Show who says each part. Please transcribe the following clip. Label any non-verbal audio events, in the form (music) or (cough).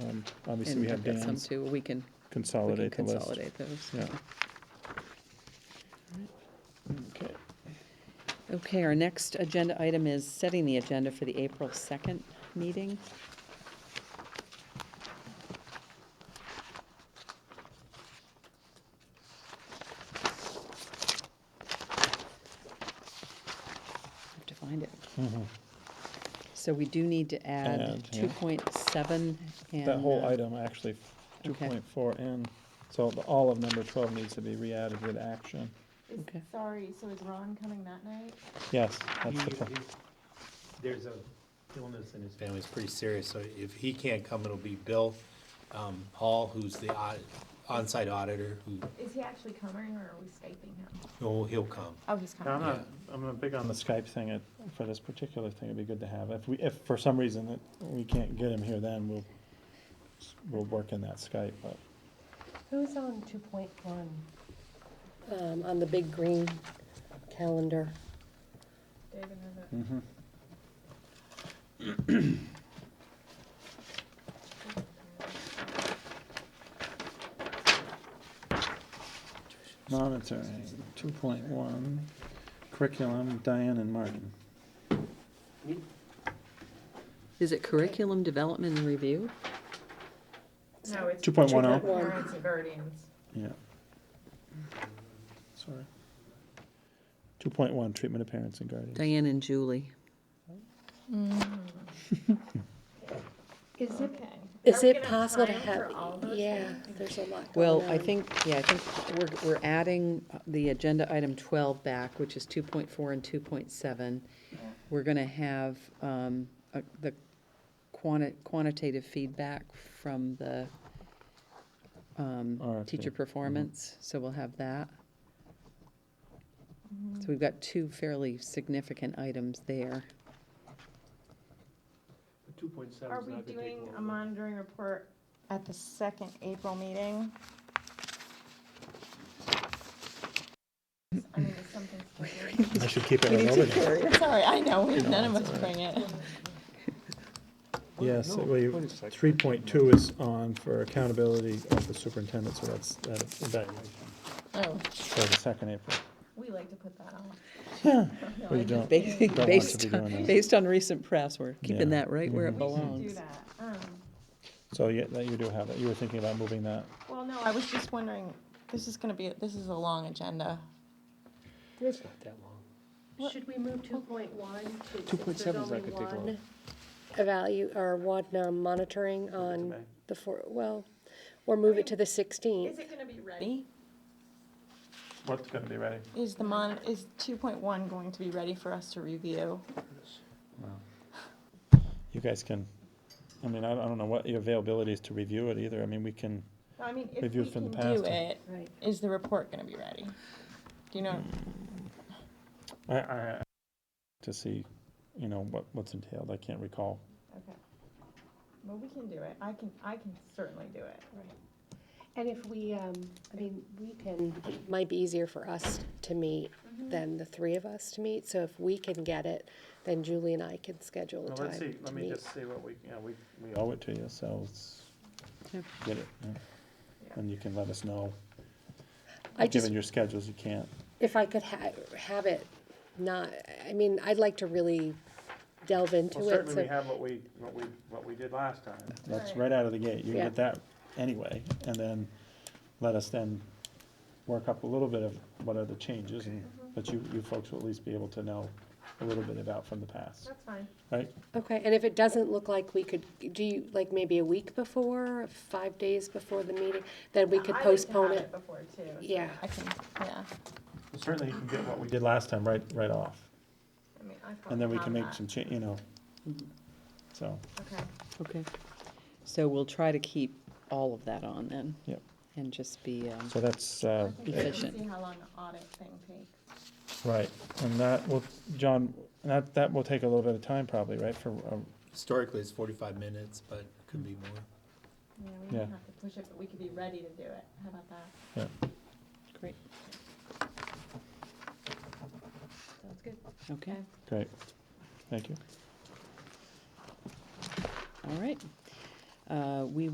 Speaker 1: then Um, obviously
Speaker 2: And
Speaker 1: we
Speaker 2: we've
Speaker 1: have
Speaker 2: got some
Speaker 1: Dan's,
Speaker 2: too, we can, we can
Speaker 1: consolidate the list.
Speaker 2: consolidate those.
Speaker 1: Yeah. Okay,
Speaker 2: Okay, our next agenda item is setting the agenda for the April 2nd meeting. Have to find it. So we do need to add
Speaker 1: Mm-hmm. Add, yeah.
Speaker 2: 2.7 and.
Speaker 1: that whole
Speaker 2: uh,
Speaker 1: item, actually, two
Speaker 2: okay.
Speaker 1: point four N, so the- all of number twelve needs to be re-added with action.
Speaker 3: Is-
Speaker 2: Okay.
Speaker 3: Sorry, so is Ron coming that night?
Speaker 1: Yes, that's the
Speaker 4: He-
Speaker 1: plan.
Speaker 4: he- There's a illness in his family, it's pretty serious, so if he can't come, it'll be Bill, um, Paul, who's the au- on-site auditor, who,
Speaker 3: Is he actually coming or are we Skyping him?
Speaker 4: no, he'll come.
Speaker 3: Oh, he's
Speaker 1: Yeah, I'm
Speaker 3: coming.
Speaker 1: not, I'm not big on the Skype thing, it- for this particular thing, it'd be good to have, if we, if for some reason that we can't get him here, then we'll, we'll work in that Skype, but,
Speaker 5: Who's on two point one? Um, on the big green calendar.
Speaker 3: David has it.
Speaker 1: monitoring, two point one, curriculum, Diane and Martin.
Speaker 2: Is it curriculum development and review?
Speaker 3: No, it's.
Speaker 1: 2.10.
Speaker 3: Parents and guardians.
Speaker 1: Yeah. Sorry. Two point one, treatment of parents and guardians.
Speaker 2: Diane and Julie.
Speaker 3: Is it?
Speaker 5: Is it possible to have, yeah,
Speaker 3: Yeah.
Speaker 5: there's a lot going on.
Speaker 2: Well, I think, yeah, I think we're, we're adding uh, the agenda item twelve back, which is two point four and two point seven. We're gonna have, um, a- the quanti- quantitative feedback from the, um,
Speaker 1: RFP,
Speaker 2: teacher
Speaker 1: mhm.
Speaker 2: performance, so we'll have that. So we've got two fairly significant items there.
Speaker 6: Two point seven
Speaker 3: Are
Speaker 6: is
Speaker 3: we
Speaker 6: not gonna take
Speaker 3: doing
Speaker 6: long.
Speaker 3: a monitoring report at the second April meeting? I mean, is something. (laughs) still-
Speaker 1: I should keep it all over there.
Speaker 3: Sorry, I know, we- none of us bring it.
Speaker 1: Yes,
Speaker 6: No,
Speaker 1: well,
Speaker 6: wait
Speaker 1: you,
Speaker 6: a second.
Speaker 1: three point two is on for accountability of the superintendent, so that's, that evaluation
Speaker 3: Oh,
Speaker 1: for the second April.
Speaker 3: we like to put that on.
Speaker 1: Well, you don't,
Speaker 2: Ba-
Speaker 1: don't want to be
Speaker 2: Based,
Speaker 1: doing
Speaker 2: on-
Speaker 1: that.
Speaker 2: based on recent press, we're
Speaker 1: Yeah. Mm-hmm.
Speaker 2: keeping that right where it
Speaker 3: We should do
Speaker 2: belongs.
Speaker 3: that. Um,
Speaker 1: So, yeah, that you do have that, you were thinking about moving that.
Speaker 3: Well, no, I was just wondering, this is gonna be, this is a long agenda.
Speaker 4: It's not that long.
Speaker 5: Should we move two point one to?
Speaker 6: 2.7 is not
Speaker 5: there's
Speaker 6: gonna take
Speaker 5: only
Speaker 6: long.
Speaker 5: one Evalu, or one um, monitoring on
Speaker 6: May.
Speaker 5: the four, well, or move it to the
Speaker 3: Is
Speaker 5: sixteenth.
Speaker 3: it gonna be ready?
Speaker 1: What's gonna be ready?
Speaker 3: Is the mon, is two point one going to be ready for us to review?
Speaker 1: You guys can, I mean, I, I don't know what your availability is to review it either, I mean, we can,
Speaker 3: I mean, if
Speaker 1: Review
Speaker 3: we
Speaker 1: from
Speaker 3: can
Speaker 1: the
Speaker 3: do
Speaker 1: past.
Speaker 3: it,
Speaker 5: Right.
Speaker 3: is the report gonna be ready? Do you
Speaker 1: Hmm.
Speaker 3: know,
Speaker 1: I, I, to see, you know, what, what's entailed, I can't recall.
Speaker 3: okay. Well, we can do it, I can, I can certainly do it.
Speaker 5: And if we, um, I mean, we can, it might be easier for us to meet than the three of us to meet. So if we can get it, then Julie and I can schedule a
Speaker 6: Well,
Speaker 5: time
Speaker 6: let's
Speaker 5: to
Speaker 6: see,
Speaker 5: meet.
Speaker 6: let me just see what we, you know, we, we
Speaker 1: owe it to you, so it's,
Speaker 2: Yeah.
Speaker 1: get it. yeah. And you can let us know.
Speaker 5: I just
Speaker 1: Given your schedules, you can't.
Speaker 5: if I could ha- have it not, I mean, I'd like to really delve into
Speaker 6: Well,
Speaker 5: it.
Speaker 6: certainly
Speaker 5: So,
Speaker 6: we have what we, what we, what we did last time.
Speaker 1: That's
Speaker 3: Right.
Speaker 1: right out of the gate. You
Speaker 5: Yeah.
Speaker 1: get that anyway, and then let us then work up a little bit of what are the changes, and, but you, you folks will at least be able to know a little bit about from the past,
Speaker 3: That's fine.
Speaker 1: right?
Speaker 5: okay, and if it doesn't look like we could, do you, like maybe a week before, five days before the meeting, then we could
Speaker 3: I like to
Speaker 5: postpone
Speaker 3: have
Speaker 5: it?
Speaker 3: Before too. so
Speaker 5: Yeah.
Speaker 3: I can, yeah,
Speaker 1: Certainly you can get what we did last time right, right off,
Speaker 3: I mean, I
Speaker 1: and
Speaker 3: probably
Speaker 1: then we can
Speaker 3: have
Speaker 1: make
Speaker 3: that. Mm-hmm.
Speaker 1: some cha, you know. So,
Speaker 3: Okay,
Speaker 2: Okay. So we'll try to keep all of that on then.
Speaker 1: Yep.
Speaker 2: And just be, um,
Speaker 1: so that's, uh,
Speaker 3: I think we can
Speaker 2: Efficient.
Speaker 3: see how long the audit thing takes.
Speaker 1: right, and that will, John, that, that will take a little bit of time probably, right, for, uh,
Speaker 4: Historically, it's forty-five minutes, but it could be more.
Speaker 3: Yeah, we
Speaker 1: Yeah.
Speaker 3: don't have to push it, but we could be ready to do it, how about that?
Speaker 1: yeah.
Speaker 2: Great,
Speaker 3: Sounds good.
Speaker 2: okay,
Speaker 3: Okay.
Speaker 1: Great, thank you.
Speaker 2: all right. Uh, We